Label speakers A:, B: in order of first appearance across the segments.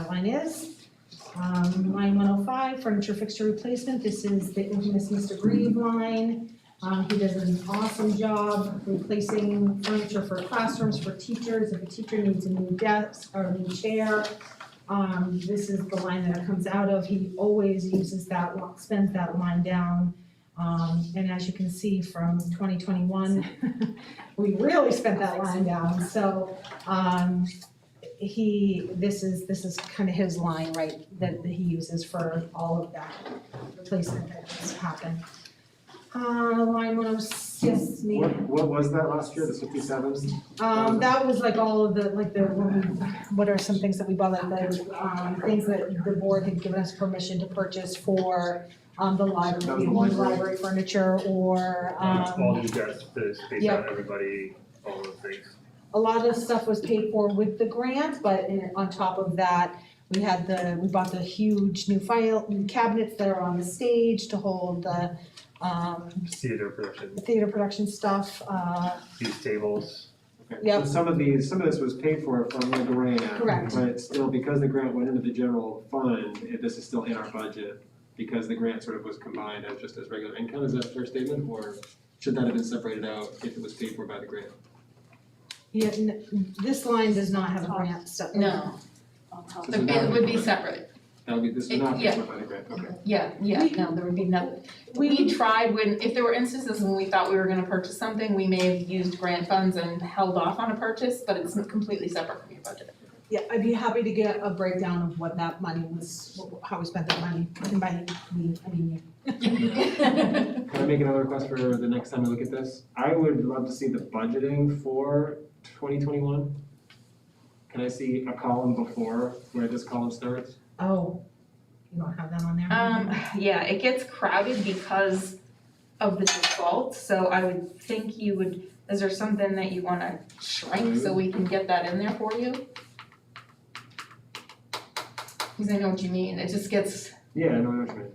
A: line is. Um, line one oh five, furniture fixture replacement, this is the infamous Mr. Grieve line. Um, he does an awesome job replacing furniture for classrooms, for teachers, if a teacher needs a new desk or a new chair. Um, this is the line that it comes out of, he always uses that, lo- spends that line down. Um, and as you can see from twenty twenty-one, we really spent that line down, so, um, he, this is, this is kind of his line, right, that that he uses for all of that replacement that has happened. Uh, line one oh six, Nate.
B: What, what was that last year, the fifty-seven?
A: Um, that was like all of the, like the, what are some things that we bought, like the, um, things that the board had given us permission to purchase for, um, the
B: That
A: library,
B: was the library.
A: library furniture or, um,
C: All you guys, the space
A: Yep.
C: out, everybody, all those things.
A: a lot of stuff was paid for with the grant, but in- on top of that, we had the, we bought the huge new file, new cabinets that are on the stage to hold the, um,
C: Theater production,
A: theater production stuff, uh,
C: these tables,
A: Yep.
B: So some of these, some of this was paid for from the grant.
A: Correct.
B: But it's still, because the grant went into the general fund, it- this is still in our budget, because the grant sort of was combined as just as regular income, is that a fair statement? Or should that have been separated out if it was paid for by the grant?
A: yeah, n- this line does not have a grant stuff.
D: No,
B: So this is not
D: it would be
B: paid for.
D: separate,
B: That would be, this is
D: It-
B: not paid
D: yeah.
B: for by the grant, okay.
D: yeah, yeah, no, there would be nothing.
A: We,
D: We tried when, if there were instances when we thought we were gonna purchase something, we may have used grant funds and held off on a purchase, but it's completely separate from your budget.
A: Yeah, I'd be happy to get a breakdown of what that money was, how we spent that money, and by me, I mean you.
B: Can I make another request for the next time we look at this? I would love to see the budgeting for twenty twenty-one. Can I see a column before where this column starts?
A: Oh, you don't have that on there?
D: Um, yeah, it gets crowded because of the default, so I would think you would, is there something that you wanna shrink so we can get that in there for you? Cause I know what you mean, it just gets,
B: Yeah, I know what you mean.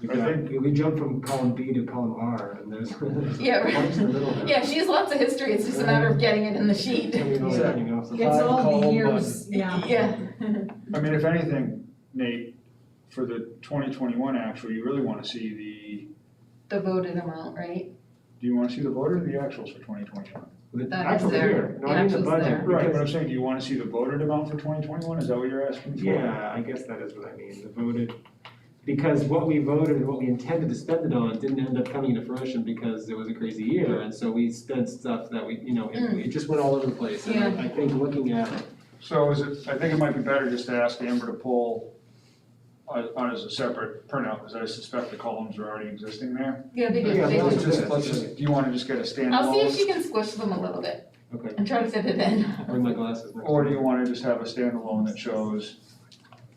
B: We
C: I
B: got, we jumped from column B to column R and there's.
D: Yeah, right.
B: What's in the middle there?
D: yeah, she has lots of history, it's just a matter of getting it in the sheet.
B: I mean, all that, you know, so-
A: It's all the
E: Column
A: years, yeah.
D: Yeah.
E: I mean, if anything, Nate, for the twenty twenty-one actual, you really wanna see the,
D: The voted amount, right?
E: do you wanna see the voted or the actuals for twenty twenty-one?
B: The
D: That is
B: actual
D: there.
B: year, no, I mean the
D: The actual's
B: budget.
D: there.
E: Right, but I'm
B: because-
E: saying, do you wanna see the voted amount for twenty twenty-one, is that what you're asking for?
B: Yeah, I guess that is what I mean, the voted, because what we voted and what we intended to spend it on didn't end up coming to fruition because it was a crazy year, and so we spent stuff that we, you know, it,
D: Mm.
B: it just went all over the place. And I I think looking at,
E: So is it, I think it might be better just to ask Amber to pull on, on as a separate printout, because I suspect the columns are already existing there.
D: Yeah, they do,
B: Yeah,
D: they
B: that was
D: do.
B: just-
E: Let's just, do you wanna just get a
D: I'll see if
E: standalone,
D: she can squish them a little bit
B: okay,
D: and try to fit it in.
B: I'll bring my glasses next
E: or do
B: time.
E: you wanna just have a standalone that shows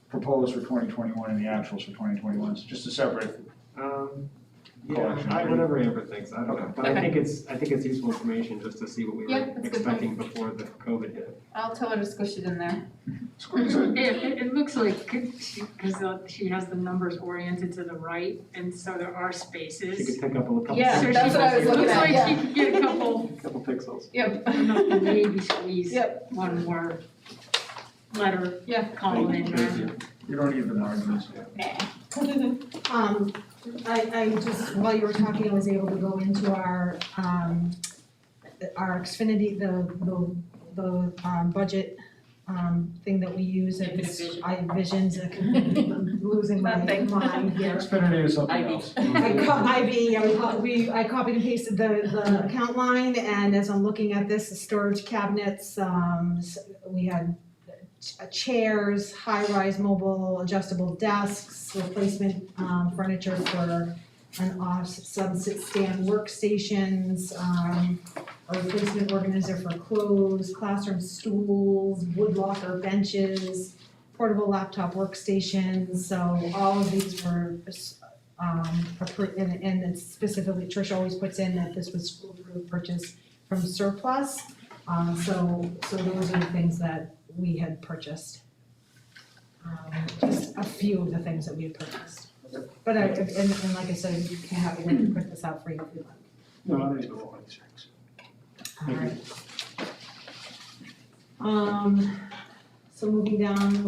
E: proposed for twenty twenty-one and the actuals for twenty twenty-one, just a separate
B: Um, yeah,
E: Collection.
B: I, whatever Amber thinks, I don't know, but I
D: Okay.
B: think it's, I think it's useful information just to see what we
D: Yeah,
B: were
D: that's a good
B: expecting before the COVID hit.
D: I'll tell her to squish it in there.
E: Squeeze
F: It, it, it looks like, because she has the numbers oriented to the right, and so there are spaces.
B: She could pick up a couple.
D: Yeah,
F: So she-
D: that's what I was looking at,
F: It looks like she could get a couple,
B: Couple pixels.
D: Yep.
F: maybe squeeze one more letter
D: Yeah.
F: column in there.
B: Thank you.
E: You don't need the margins.
A: Um, I, I just, while you were talking, I was able to go into our, um, our Xfinity, the, the, the, um, budget, um, thing that we use, and it's, I envisioned a- losing my
D: Nothing.
A: mind here.
E: Xfinity is something
D: Ivy.
E: else.
A: I co- IB, I co- we, I copied and pasted the, the account line, and as I'm looking at this, the storage cabinets, um, s- we had uh, ch- chairs, high-rise mobile adjustable desks, replacement, um, furniture for an off sunset stand workstations, um, a replacement organizer for clothes, classroom stools, wood locker benches, portable laptop workstations, so all of these were um, appro- and, and it's specifically, Trish always puts in that this was school approved purchase from surplus. Um, so, so those are the things that we had purchased. Um, just a few of the things that we had purchased. But I, and, and like I said, you can have a way to print this out for you if you
E: No, I think it's about like six.
A: want, alright. Um, so moving down,